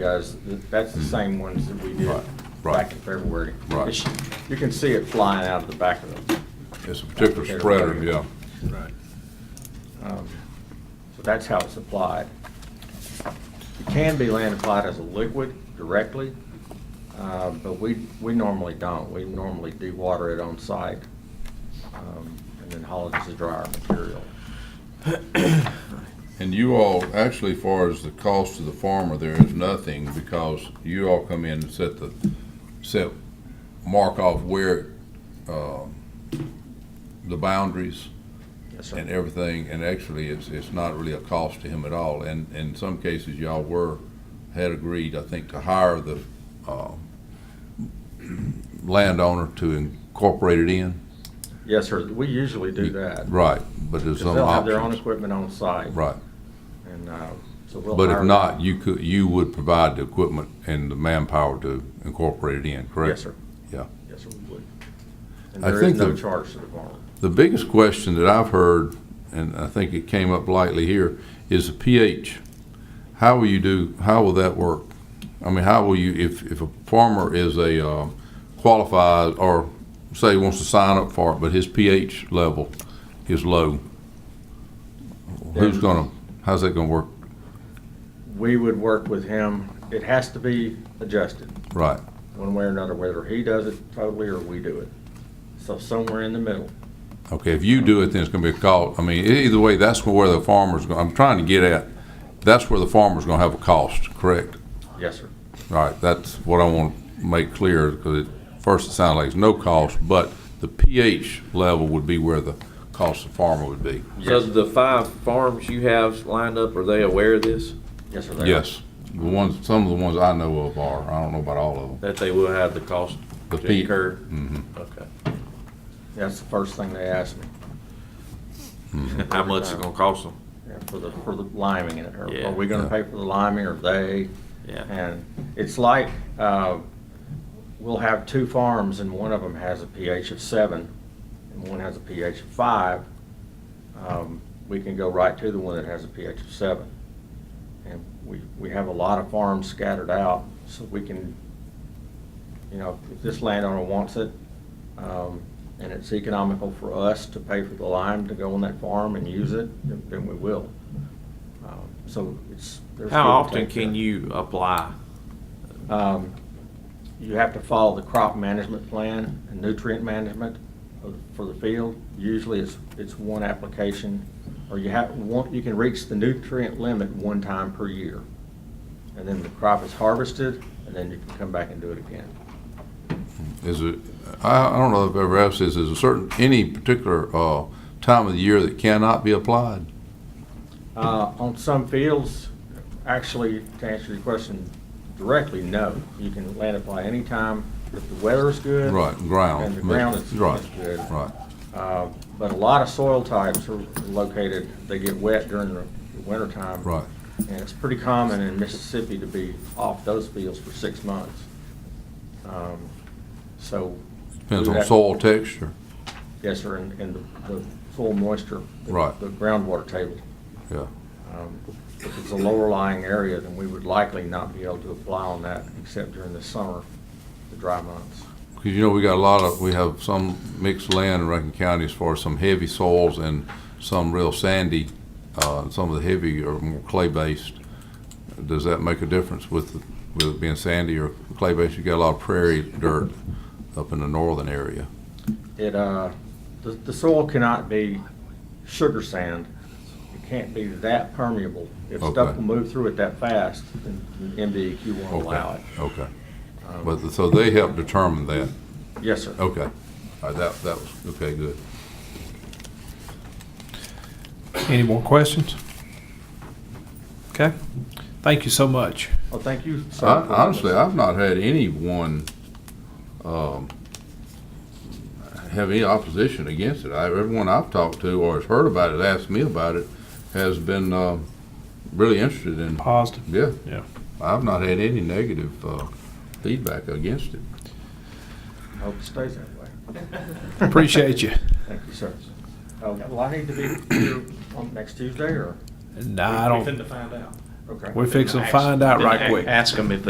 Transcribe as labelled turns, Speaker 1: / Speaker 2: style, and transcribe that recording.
Speaker 1: guys, that's the same ones that we did
Speaker 2: Hmm. Right, right.
Speaker 1: back in February.
Speaker 2: Right.
Speaker 1: It's- You can see it flying out of the back of them.
Speaker 2: It's a particular spreader, yeah.
Speaker 3: Right.
Speaker 1: Um, So that's how it's applied. It can be land applied as a liquid directly, uh, but we, we normally don't. We normally dewater it on site um, and then haul it as a dryer material.
Speaker 2: And you all, actually, as far as the cost to the farmer, there is nothing because you all come in and set the, set, mark off where, um, the boundaries
Speaker 1: Yes,
Speaker 2: and
Speaker 1: sir.
Speaker 2: everything, and actually, it's, it's not really a cost to him at all. And in some cases, y'all were, had agreed, I think, to hire the, um, landowner to incorporate it in.
Speaker 1: Yes, sir. We usually do that.
Speaker 2: Right, but there's
Speaker 1: Because
Speaker 2: some
Speaker 1: they'll have their own
Speaker 2: options.
Speaker 1: equipment on site.
Speaker 2: Right.
Speaker 1: And uh, so we'll.
Speaker 2: But if
Speaker 1: hire-
Speaker 2: not, you could, you would provide the equipment and the manpower to incorporate it in, correct?
Speaker 1: Yes, sir.
Speaker 2: Yeah.
Speaker 1: Yes, sir, we would. And
Speaker 2: I
Speaker 1: there is
Speaker 2: think
Speaker 1: no
Speaker 2: the-
Speaker 1: charge to the farmer.
Speaker 2: The biggest question that I've heard, and I think it came up lightly here, is the pH. How will you do, how will that work? I mean, how will you, if, if a farmer is a uh, qualified, or say he wants to sign up for it, but his pH level is low, who's
Speaker 1: Then-
Speaker 2: gonna, how's that gonna work?
Speaker 1: We would work with him. It has to be adjusted
Speaker 2: Right,
Speaker 1: one way or another, whether he does it totally or we do it. So somewhere in the middle.
Speaker 2: okay, if you do it, then it's gonna be a call, I mean, e- either way, that's where the farmer's, go- I'm trying to get at, that's where the farmer's gonna have a cost, correct?
Speaker 1: Yes, sir.
Speaker 2: All right, that's what I want to make clear, because at first it sounded like it's no cost, but the pH level would be where the cost to farmer would be.
Speaker 3: So the five farms you have lined up, are they aware of this?
Speaker 1: Yes, sir. they are.
Speaker 2: Yes, the ones, some of the ones I know of are, I don't know about all of them.
Speaker 3: That they will have the cost
Speaker 2: The
Speaker 3: to
Speaker 2: P-
Speaker 3: incur?
Speaker 2: Mhm.
Speaker 3: Okay.
Speaker 1: That's the first thing they asked me,
Speaker 3: How much it's gonna cost them?
Speaker 1: yeah, for the, for the liming and, or
Speaker 3: Yeah.
Speaker 1: are we gonna
Speaker 2: Yeah.
Speaker 1: pay for the liming or they?
Speaker 3: Yeah.
Speaker 1: And it's like, uh, we'll have two farms and one of them has a pH of seven and one has a pH of five. Um, We can go right to the one that has a pH of seven. And we, we have a lot of farms scattered out, so we can, you know, if this landowner wants it, um, and it's economical for us to pay for the lime to go on that farm and use it, then then we will. Um, So it's. there's
Speaker 3: How
Speaker 1: give and
Speaker 3: often
Speaker 1: take there.
Speaker 3: can you apply?
Speaker 1: Um, You have to follow the crop management plan and nutrient management of- for the field. Usually it's, it's one application, or you have, one, you can reach the nutrient limit one time per year. And then the crop is harvested, and then you can come back and do it again.
Speaker 2: Is it, I, I don't know if I've ever asked this, is a certain, any particular, uh, time of the year that cannot be applied?
Speaker 1: Uh, On some fields, actually, to answer your question directly, no. You can land apply anytime if the weather's good.
Speaker 2: Right, ground.
Speaker 1: And the ground is
Speaker 2: Right,
Speaker 1: is good.
Speaker 2: Right,
Speaker 1: Uh, But a lot of soil types are located, they get wet during the wintertime.
Speaker 2: right.
Speaker 1: And it's pretty common in Mississippi to be off those fields for six months. Um, So.
Speaker 2: Depends
Speaker 1: we
Speaker 2: on
Speaker 1: have-
Speaker 2: soil texture,
Speaker 1: Yes, sir, and, and the- the soil moisture. the-
Speaker 2: Right.
Speaker 1: The groundwater table.
Speaker 2: yeah.
Speaker 1: Um, If it's a lower lying area, then we would likely not be able to apply on that except during the summer, the dry months.
Speaker 2: Because you know, we got a lot of, we have some mixed land in Rankin County as far as some heavy soils and some real sandy, uh, and some of the heavy are more clay-based. Does that make a difference with, with it being sandy or clay-based? You got a lot of prairie dirt up in the northern area.
Speaker 1: It, uh, the, the soil cannot be sugar sand. It can't be that permeable. If stuff
Speaker 2: Okay.
Speaker 1: will move through it that fast, then MDEQ won't allow it.
Speaker 2: Okay. But, so they help determine that.
Speaker 1: Yes, sir.
Speaker 2: Okay. All right, that, that was, okay, good.
Speaker 4: Any more questions? Okay, thank you so much.
Speaker 1: Well, thank you, sir.
Speaker 2: I-
Speaker 1: for
Speaker 2: Honestly,
Speaker 1: this.
Speaker 2: I've not had anyone um, have any opposition against it. I- Everyone I've talked to or has heard about it, asked me about it, has been um, really interested in,
Speaker 4: Positive.
Speaker 2: yeah.
Speaker 4: Yeah.
Speaker 2: I've not had any negative uh, feedback against it.
Speaker 1: I Hope it stays that way.
Speaker 4: Appreciate you.
Speaker 1: Thank you, sir. Uh, Will I need to be here on next Tuesday, or?
Speaker 4: No, I don't,
Speaker 5: to find out.
Speaker 1: Okay.
Speaker 4: We're fixing to find out right
Speaker 5: Then a-
Speaker 4: quick.
Speaker 5: Ask them if